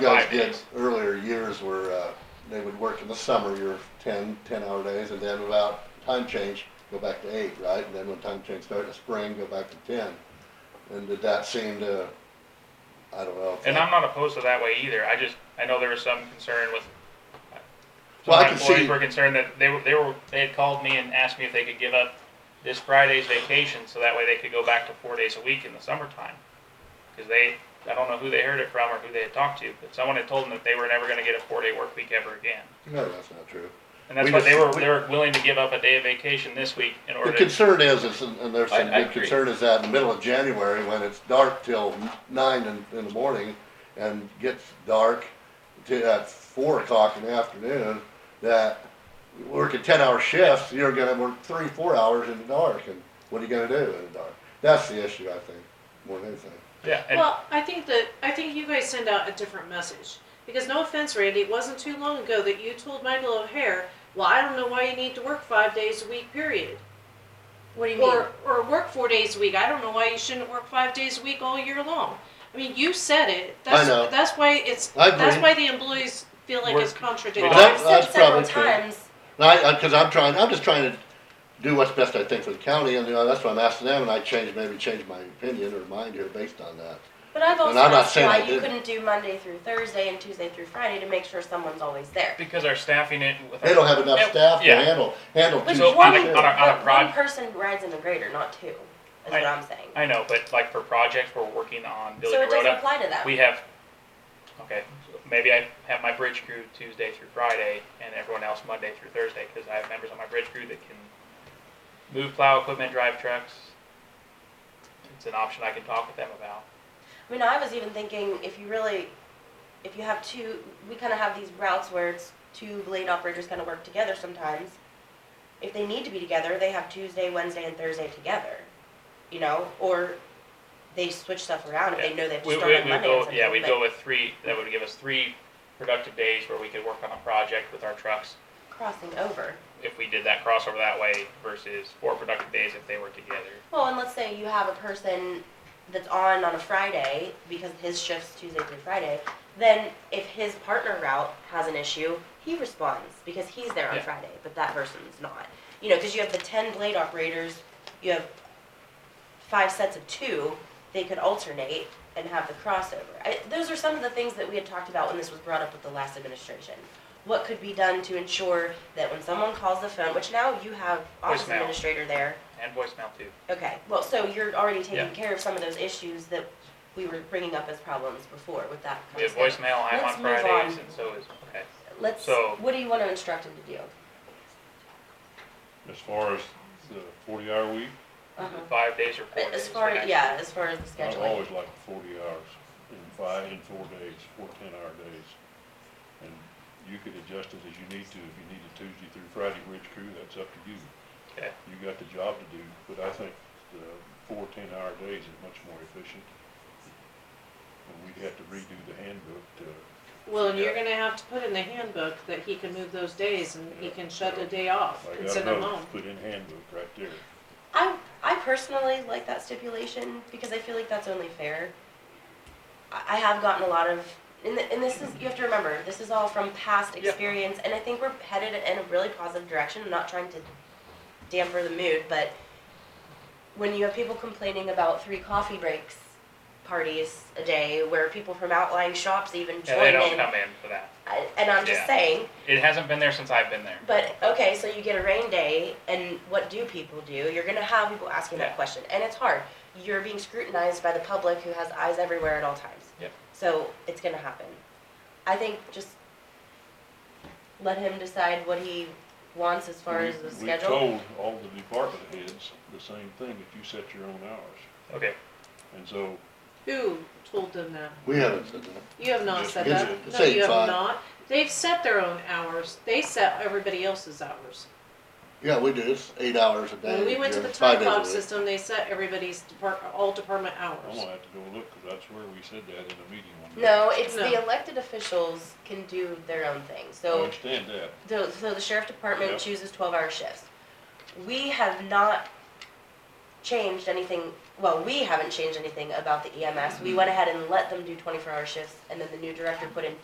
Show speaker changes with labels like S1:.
S1: you guys
S2: Five
S1: did
S2: days.
S1: earlier years were, uh, they would work in the summer, your 10 10 hour days, and then about time change, go back to eight, right? And then when time change started in spring, go back to ten. And did that seem to, I don't know. if
S2: And
S1: that-
S2: I'm not opposed to that way either. I just, I know there was some concern with.
S1: Well, I
S2: some
S1: can
S2: employees
S1: see-
S2: Were concerned that they were, they were, they had called me and asked me if they could give up this Friday's vacation so that way they could go back to four days a week in the summertime. Cause they, I don't know who they heard it from or who they had talked to, but someone had told them that they were never gonna get a four day work week ever again.
S1: No, that's not true.
S2: And that's
S1: We
S2: why
S1: just-
S2: they were,
S1: we-
S2: they were willing to give up a day of vacation this week in
S1: The
S2: order to,
S1: concern is, is, and there's some
S3: I- I
S1: big
S3: agree.
S1: concern is that in the middle of January, when it's dark till nine in, in the morning, and gets dark to, at four o'clock in the afternoon, that working ten-hour shifts, you're gonna work three, four hours in the dark, and what are you gonna do in the dark? That's the issue, I think, more than anything.
S2: yeah. and-
S4: Well, I think that, I think you guys send out a different message. Because no offense, Randy, it wasn't too long ago that you told Michael O'Hare, well, I don't know why you need to work five days a week, period.
S5: What do you mean?
S4: Or, or work four days a week. I don't know why you shouldn't work five days a week all year long. I mean, you said it. That's,
S1: know.
S4: That's why it's,
S1: I agree.
S4: that's why the employees feel like it's
S2: Work-
S4: contradictory.
S5: Well,
S1: That-
S5: I've said
S1: that's
S5: several
S1: probably true.
S5: times,
S1: And I, I, cause I'm trying, I'm just trying to do what's best I think for the county, and, you know, that's why I'm asking them, and I change, maybe change my opinion or mind here based on that.
S5: but I've also
S1: And I'm not
S5: asked
S1: saying I
S5: why you
S1: didn't.
S5: couldn't do Monday through Thursday and Tuesday through Friday to make sure someone's always there.
S2: Because our staffing it with.
S1: They don't have enough staff to
S2: Yeah.
S1: handle, handle two.
S5: But
S2: So on
S5: one,
S2: a-
S1: shifts.
S2: on a- on a
S5: but
S2: proj-
S5: one person rides in the grader, not two, is
S2: I-
S5: what I'm saying.
S2: I know, but like for projects we're working on building
S5: So
S2: a
S5: it
S2: road
S5: doesn't
S2: up.
S5: apply to that.
S2: We have, okay, maybe I have my bridge crew Tuesday through Friday and everyone else Monday through Thursday, cause I have members on my bridge crew that can move plow equipment, drive trucks. It's an option I can talk with them about.
S5: I mean, I was even thinking if you really, if you have two, we kind of have these routes where it's two blade operators kind of work together sometimes. If they need to be together, they have Tuesday, Wednesday, and Thursday together, you know, or they switch stuff around if they know they have to
S2: We,
S5: start
S2: we,
S5: on
S2: we
S5: Monday. or
S2: go,
S5: something,
S2: yeah, we'd
S5: but-
S2: go with three, that would give us three productive days where we could work on a project with our trucks.
S5: crossing over.
S2: If we did that crossover that way versus four productive days if they were together.
S5: Well, and let's say you have a person that's on on a Friday because his shift's Tuesday through Friday, then if his partner route has an issue, he responds because he's there on
S2: Yeah.
S5: Friday, but that person's not. You know, because you have the 10 blade operators, you have five sets of two, they could alternate and have the crossover. I, those are some of the things that we had talked about when this was brought up with the last administration. What could be done to ensure that when someone calls the phone, which now you have office
S2: Voicemail.
S5: administrator there,
S2: And voicemail too.
S5: Okay, well, so you're already
S2: Yeah.
S5: taking care of some of those issues that we were bringing up as problems before with that.
S2: We have
S5: concept.
S2: voicemail, I'm
S5: Let's
S2: on
S5: move
S2: Fridays
S5: on.
S2: and so is, okay.
S5: Let's,
S2: so-
S5: what do you want to instruct him to do?
S6: As far as the forty hour week,
S2: Five days or four days.
S5: As far,
S2: the next
S5: yeah, as far as the
S6: I've
S5: scheduling.
S6: always liked forty hours in five, in four days, four ten hour days. And you could adjust it as you need to, if you need a Tuesday through Friday bridge crew, that's up to you.
S2: Okay.
S6: You got the job to do, but I think the four ten hour days is much more efficient. And we'd have to redo the handbook to,
S4: Well, and you're gonna have to put in the handbook that he can move those days and he can shut a day off
S6: I
S4: and
S6: got
S4: send
S6: a
S4: them
S6: note,
S4: home.
S6: put in handbook right there.
S5: I, I personally like that stipulation because I feel like that's only fair. I, I have gotten a lot of, and, th- and this is, you have to remember, this is all from past
S2: Yeah.
S5: experience, and I think we're headed in a really positive direction. I'm not trying to damper the mood, but when you have people complaining about three coffee breaks, parties a day, where people from outlying shops even
S2: And
S5: join
S2: they don't
S5: in,
S2: come in for that.
S5: I, and I'm just
S2: Yeah.
S5: saying,
S2: It hasn't been there since I've been there.
S5: but okay, so you get a rain day, and what do people do? You're gonna have people asking
S2: Yeah.
S5: that question, and it's hard. You're being scrutinized by the public who has eyes everywhere at all times.
S2: Yep.
S5: So it's gonna happen. I think just let him decide what he wants as far as the
S6: We-
S5: schedule.
S6: We told all the department heads the same thing, that you set your own hours.
S2: Okay,
S6: And so
S4: Who told them that?
S1: We haven't said that.
S4: You have not
S6: Just
S4: said
S1: give
S4: that.
S1: it-
S4: No,
S1: say
S4: you have
S1: five.
S4: not. They've set their own hours. They set everybody else's hours.
S1: Yeah, we do, it's eight hours a day.
S4: When we went to
S1: yeah,
S4: the
S1: five
S4: time
S1: days a
S4: clock
S1: week.
S4: system, they set everybody's depart, all department
S6: I'm
S4: hours.
S6: gonna have to go look, 'cause that's where we said that in a meeting one day.
S5: No, it's
S4: No.
S5: the elected officials can do their own thing.
S6: I
S5: So
S6: understand that,
S5: So, so the sheriff department
S6: Yep.
S5: chooses twelve hour shifts. We have not changed anything well, E we haven't changed anything about the EMS. We went ahead and let them do twenty-four hour shifts and then the new director put in